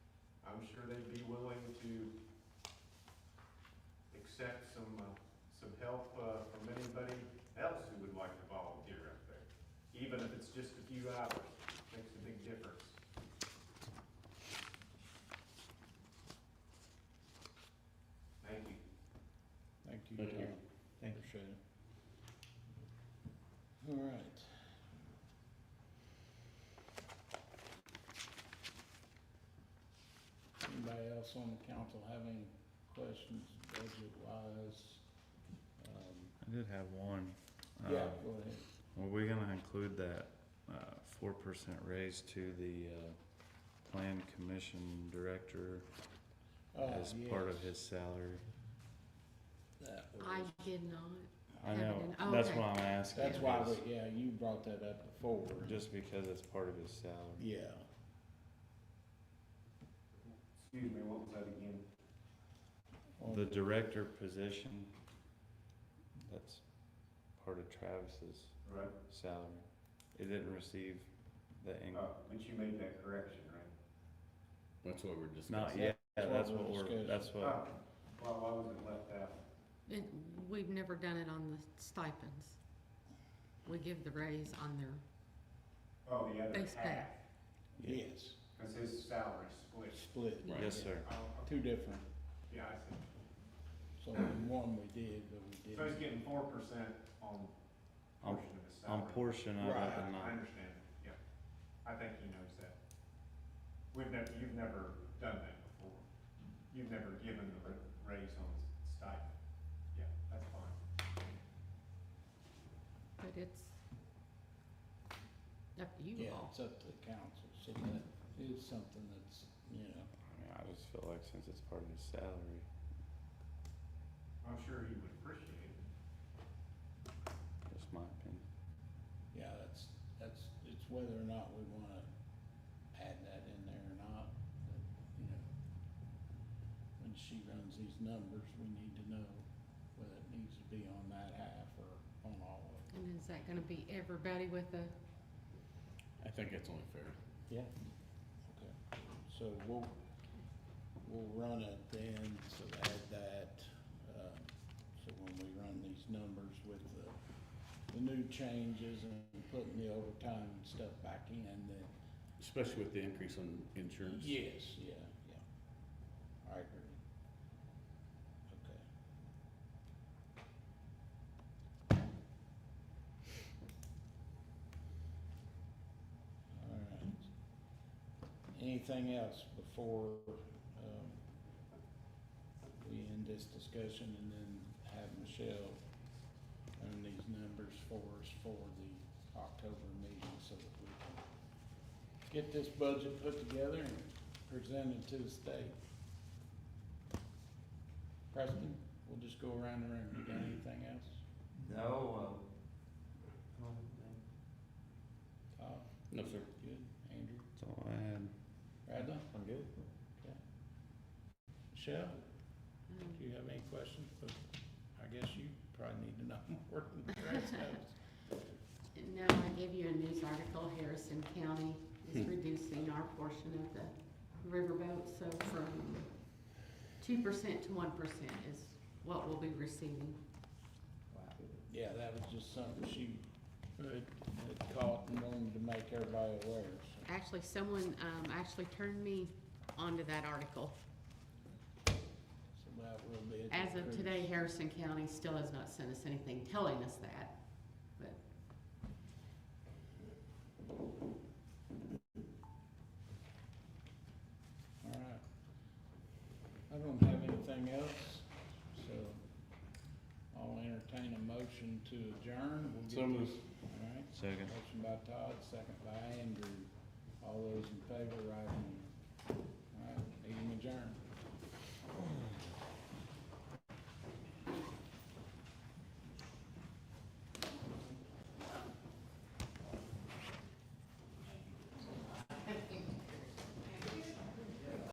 I'm sure they'd be willing to accept some, uh, some help uh, from anybody else who would like to volunteer up there, even if it's just a few hours, makes a big difference. Thank you. Thank you, Thank you. Tom. Thank you. Appreciate it. All right. Anybody else on the council have any questions budget wise? I did have one. Um, Yeah, go ahead. Were we gonna include that, uh, four percent raise to the, uh, plan commission director Oh, as part of yes, his salary? that was- I did not. I Have it know, in- oh, that's okay. why I'm asking. That's why, is we- yeah, you brought that up before. Just because it's part of his salary. Yeah, Excuse me, what was that again? on The director position, that's part of Travis's Right, salary. It didn't receive the increase. uh, but you made that correction, right? That's what we're discussing. Not yet, That's that's what we're what we're, that's what, Oh, Well, why was it left out? And we've never done it on the stipends. We give the raise on their, Oh, the other Base pay. half, Yes, because his salary split. split, Right. yes, sir. Oh, two different, Yeah, I see. so the one we did, but we didn't. So he's getting four percent on On- portion of his salary. On portion of it, Right, but I not, understand, yeah. I think he knows that. We've never, you've never done that before. You've never given the ra- raise on stipend. Yeah, that's fine. but it's up to you Yeah, all. it's up to the council, so that is something that's, you know, I mean, I just feel like since it's part of his salary, I'm sure he would appreciate it. just my opinion. yeah, that's, that's, it's whether or not we wanna add that in there or not, but, you know. When she runs these numbers, we need to know whether it needs to be on that half or on all of it. And is that gonna be everybody with a, um, I think that's only fair. Yeah. Okay, so we'll, we'll run it then, so add that, uh, so when we run these numbers with the, the new changes and putting the overtime and stuff back in, then. Especially with the increase on insurance. Yes, yeah, yeah. I agree. Okay. All right. Anything else before, um, we end this discussion and then have Michelle run these numbers for us for the October meeting so that we can get this budget put together and presented to the state. Preston, we'll just go around the room. You got anything else? No, um, Todd? No, sir. Good. Andrew? That's all I had. Radla? I'm good. Okay. Michelle, um, do you have any questions? But I guess you probably need to know more than the rest of us. No, I gave you a news article, Harrison County is reducing our portion of the riverboat, so from two percent to one percent is what we'll be receiving. Yeah, that was just something she had had caught and wanted to make everybody aware, so. Actually, someone, um, actually turned me onto that article. so that will be. a As of decrease. today, Harrison County still has not sent us anything telling us that, but All right. I don't have anything else, so I'll entertain a motion to adjourn. We'll get So moved. this- All right. Second. Motion by Todd, second by Andrew. All those in favor, right hand. All right, meeting adjourned.